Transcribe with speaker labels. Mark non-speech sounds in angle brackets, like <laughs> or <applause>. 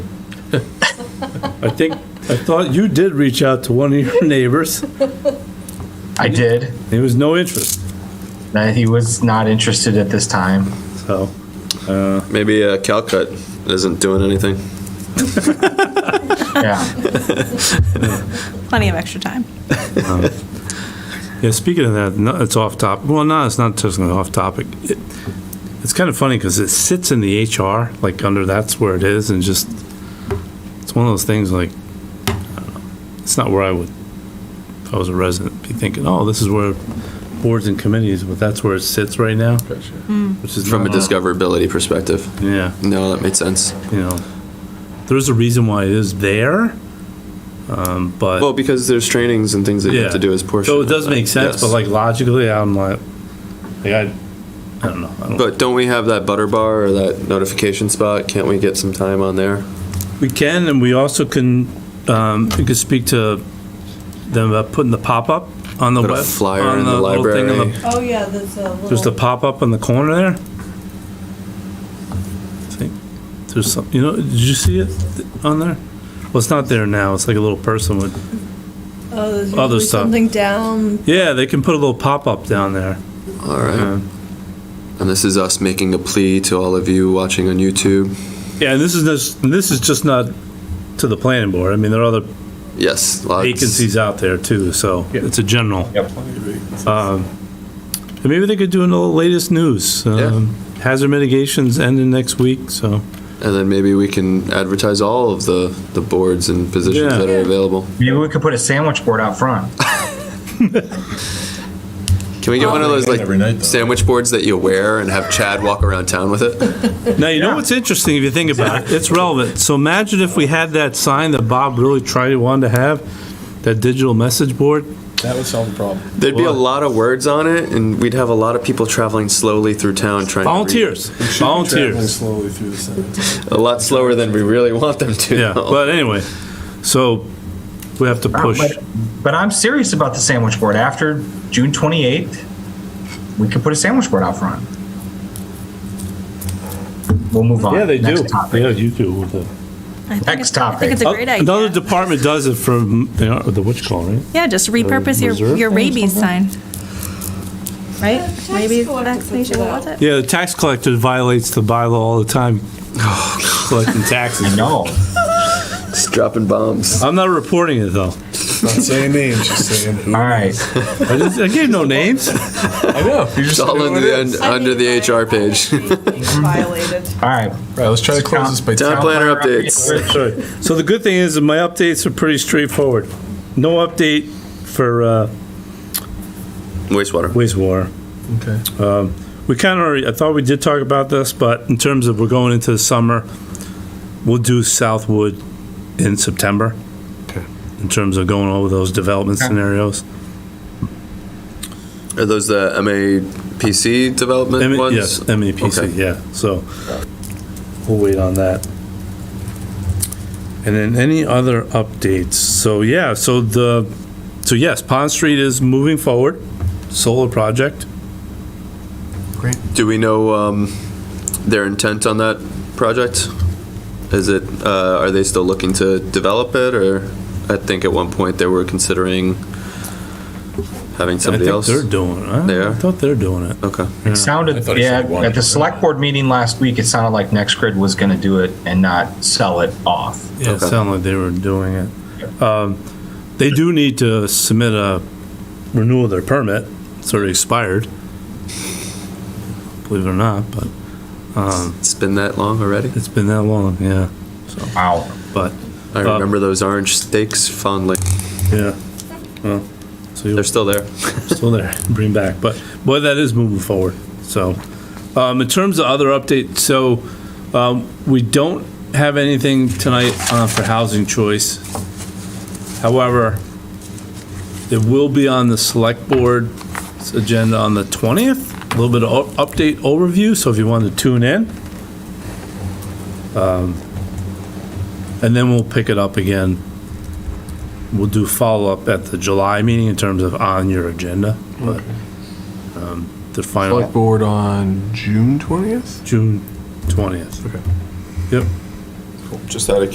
Speaker 1: I think, I thought you did reach out to one of your <laughs> neighbors.
Speaker 2: I did.
Speaker 1: There was no interest,
Speaker 2: Uh, he was not interested at this time.
Speaker 1: so.
Speaker 3: Maybe uh, Calcut isn't doing anything.
Speaker 1: <laughs>
Speaker 2: Yeah.
Speaker 4: Plenty of extra time.
Speaker 1: Yeah, speaking of that, no- it's off top. Well, no, it's not just off topic. It- It's kind of funny because it sits in the HR, like under that's where it is, and just, it's one of those things like, I don't know. it's not where I would, if I was a resident, be thinking, oh, this is where boards and committees, but that's where it sits right now. Which is
Speaker 3: From a
Speaker 1: not-
Speaker 3: discoverability perspective.
Speaker 1: Yeah,
Speaker 3: No, that made sense.
Speaker 1: you know, there's a reason why it is there, um, but.
Speaker 3: Well, because there's trainings and things that you have to do as portion.
Speaker 1: So it
Speaker 3: of
Speaker 1: does
Speaker 3: that.
Speaker 1: make sense,
Speaker 3: Yes.
Speaker 1: but like logically, I'm like, like I, I don't know. I don't,
Speaker 3: But don't we have that butter bar or that notification spot? Can't we get some time on there?
Speaker 1: we can, and we also can, um, we could speak to them about putting the pop up on the
Speaker 3: Put a
Speaker 1: web,
Speaker 3: flyer
Speaker 1: on
Speaker 3: in the
Speaker 1: little thing on
Speaker 3: library.
Speaker 5: Oh, yeah, that's a little. uh,
Speaker 1: There's the pop up in the corner there. I think there's some. You know, did you see it on there? Well, it's not there now. It's like a little person with.
Speaker 5: Oh, there's
Speaker 1: other
Speaker 5: usually
Speaker 1: stuff.
Speaker 5: Something down,
Speaker 1: Yeah, they can put a little pop up down there. um,
Speaker 3: All right.
Speaker 1: Yeah.
Speaker 3: And this is us making a plea to all of you watching on YouTube.
Speaker 1: Yeah, and this is just, this is just not to the planning board. I mean, there are other
Speaker 3: Yes, lots.
Speaker 1: vacancies out there too, so it's a general.
Speaker 2: Yep.
Speaker 1: Um, And maybe they could do the latest news. Um, Hazard mitigations ending next week, so.
Speaker 3: And then maybe we can advertise all of the, the boards and positions
Speaker 1: Yeah.
Speaker 3: that are available.
Speaker 2: Maybe we could put a sandwich board out front.
Speaker 3: Can we get one of those like
Speaker 6: Every night, though.
Speaker 3: sandwich boards that you wear and have Chad walk around town with it?
Speaker 1: Now, you know what's interesting if you think about it? It's relevant. So imagine if we had that sign that Bob really tried, wanted to have, that digital message board.
Speaker 6: That would solve the problem.
Speaker 3: There'd be a
Speaker 1: What?
Speaker 3: lot of words on it, and we'd have a lot of people traveling slowly through town trying
Speaker 1: Volunteers,
Speaker 6: Traveling
Speaker 1: volunteers.
Speaker 6: slowly through the sentence.
Speaker 3: to read. A lot slower than we really want them to. <laughs>
Speaker 1: Yeah, but anyway, so we have to push.
Speaker 2: But, but I'm serious about the sandwich board. After June 28th, we could put a sandwich board out front. We'll move on.
Speaker 1: Yeah, they
Speaker 2: Next
Speaker 1: do.
Speaker 2: Topic.
Speaker 1: Yeah, you do with the.
Speaker 4: I think
Speaker 2: Next
Speaker 4: it's- I think it's a great
Speaker 1: Oh, Uh, Another
Speaker 4: idea.
Speaker 1: department does it for, they are- the what you call, it, right?
Speaker 4: Yeah, just repurpose your,
Speaker 1: Reserve?
Speaker 4: your rabies sign. Right? Rabies
Speaker 5: collector puts
Speaker 4: vaccination,
Speaker 5: it
Speaker 4: what
Speaker 5: out.
Speaker 4: was it?
Speaker 1: Yeah, the tax collector violates the bylaw all the time, <sighs> collecting taxes.
Speaker 2: No.
Speaker 3: Just dropping
Speaker 6: <laughs>
Speaker 3: bombs.
Speaker 1: I'm not reporting it, though.
Speaker 6: Not saying names, just saying who.
Speaker 2: All right.
Speaker 1: I just- I gave no names.
Speaker 6: I know. You're
Speaker 3: It's
Speaker 6: just
Speaker 3: all
Speaker 6: doing
Speaker 3: under the,
Speaker 6: it.
Speaker 3: un-
Speaker 5: I
Speaker 3: under
Speaker 5: mean,
Speaker 3: the
Speaker 5: I-
Speaker 3: HR page. <laughs>
Speaker 5: violated.
Speaker 2: All
Speaker 6: <laughs>
Speaker 2: right.
Speaker 6: Right, let's try to close this by
Speaker 3: Town planner updates.
Speaker 1: Sorry. So the good thing is that my updates are pretty straightforward. No update for uh,
Speaker 3: Wastewater.
Speaker 1: wastewater.
Speaker 6: Okay.
Speaker 1: We kind of already, I thought we did talk about this, but in terms of we're going into the summer, we'll do Southwood in September.
Speaker 6: Okay.
Speaker 1: In terms of going over those development
Speaker 2: Okay.
Speaker 1: scenarios.
Speaker 3: Are those the MAPC development
Speaker 1: M-
Speaker 3: ones?
Speaker 1: Yes, MEPC,
Speaker 3: Okay.
Speaker 1: yeah, so we'll wait on that. And then any other updates? So, yeah, so the, so yes, Pond Street is moving forward, solar project.
Speaker 3: Do we know um, their intent on that project? Is it, uh, are they still looking to develop it, or I think at one point they were considering having somebody else?
Speaker 1: I think they're doing it. I-
Speaker 3: They
Speaker 1: I
Speaker 3: are?
Speaker 1: thought they're doing it.
Speaker 3: Okay.
Speaker 2: It sounded,
Speaker 6: thought he
Speaker 2: yeah,
Speaker 6: said one.
Speaker 2: at the select board meeting last week, it sounded like NextGrid was going to do it and not sell it off.
Speaker 1: Yeah, it
Speaker 3: Okay.
Speaker 1: sounded like they were doing it. Um, They do need to submit a renewal of their permit, it's already
Speaker 3: <laughs>
Speaker 1: expired. Believe it or not, but
Speaker 3: It's been that long already?
Speaker 1: it's been that long, yeah,
Speaker 2: Wow.
Speaker 1: but,
Speaker 3: I
Speaker 1: Uh,
Speaker 3: remember those orange steaks fondly.
Speaker 1: yeah. Well, so you'll-
Speaker 3: They're still there.
Speaker 1: still there, bring back, but, boy, that is moving forward, so. Um, in terms of other updates, so, um, we don't have anything tonight, uh, for housing choice. However, it will be on the select board's agenda on the twentieth, a little bit of o- update overview, so if you want to tune in. Um, And then we'll pick it up again we'll do follow-up at the July meeting in terms of on your agenda, but um, the
Speaker 6: Select
Speaker 1: final,
Speaker 6: board on June 20th?
Speaker 1: June 20th.
Speaker 6: Okay.
Speaker 1: Yep.
Speaker 6: Just out of